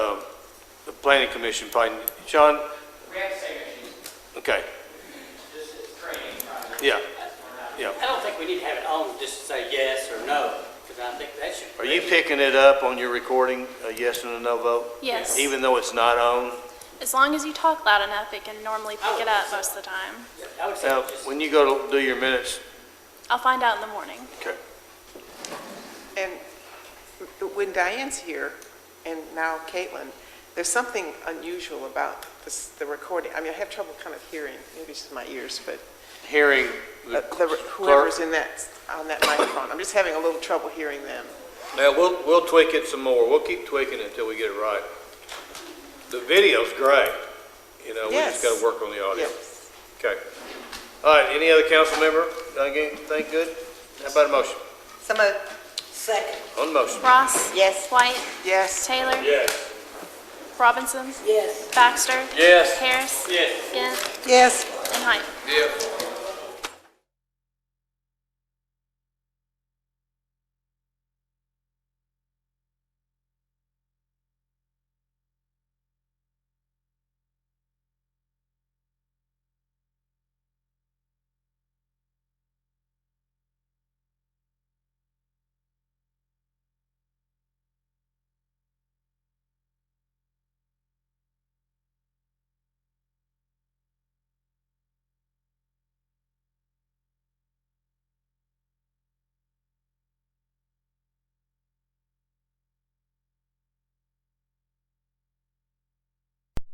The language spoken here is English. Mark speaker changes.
Speaker 1: Um, planning commission, probably, Sean,
Speaker 2: We have to say that she's,
Speaker 1: okay,
Speaker 2: this is training project.
Speaker 1: yeah.
Speaker 3: I don't think we need to have it on just to say yes or no, because I think that should.
Speaker 1: Are you picking it up on your recording, a yes and a no vote?
Speaker 4: Yes.
Speaker 1: Even though it's not on?
Speaker 4: As long as you talk loud enough, it can normally
Speaker 3: I
Speaker 4: pick
Speaker 3: would
Speaker 4: it up
Speaker 3: think so.
Speaker 4: most of the time.
Speaker 3: I would say
Speaker 1: Now,
Speaker 3: just,
Speaker 1: when you go to do your minutes,
Speaker 4: I'll find out in the morning.
Speaker 1: okay.
Speaker 5: And when Diane's here, and now Caitlin, there's something unusual about this, the recording. I mean, I have trouble kind of hearing, maybe it's just my ears, but
Speaker 1: Hearing
Speaker 5: uh,
Speaker 1: the
Speaker 5: the-
Speaker 1: clerk.
Speaker 5: whoever's in that, on that microphone, I'm just having a little trouble hearing them.
Speaker 1: Now, we'll, we'll tweak it some more. We'll keep tweaking it until we get it right. The video's great. You know, we just
Speaker 5: Yes.
Speaker 1: gotta work on the audio.
Speaker 5: Yes.
Speaker 1: Okay. All right, any other council member? Done again? Think good? How about a motion?
Speaker 6: Some of,
Speaker 1: On motion?
Speaker 4: Ross?
Speaker 6: Yes.
Speaker 4: White?
Speaker 5: Yes.
Speaker 4: Taylor?
Speaker 1: Yes.
Speaker 4: Robinson?
Speaker 6: Yes.
Speaker 4: Baxter?
Speaker 1: Yes.
Speaker 4: Harris?
Speaker 3: yes,
Speaker 4: Gant?
Speaker 6: Yes.
Speaker 4: And Height?
Speaker 1: Yes.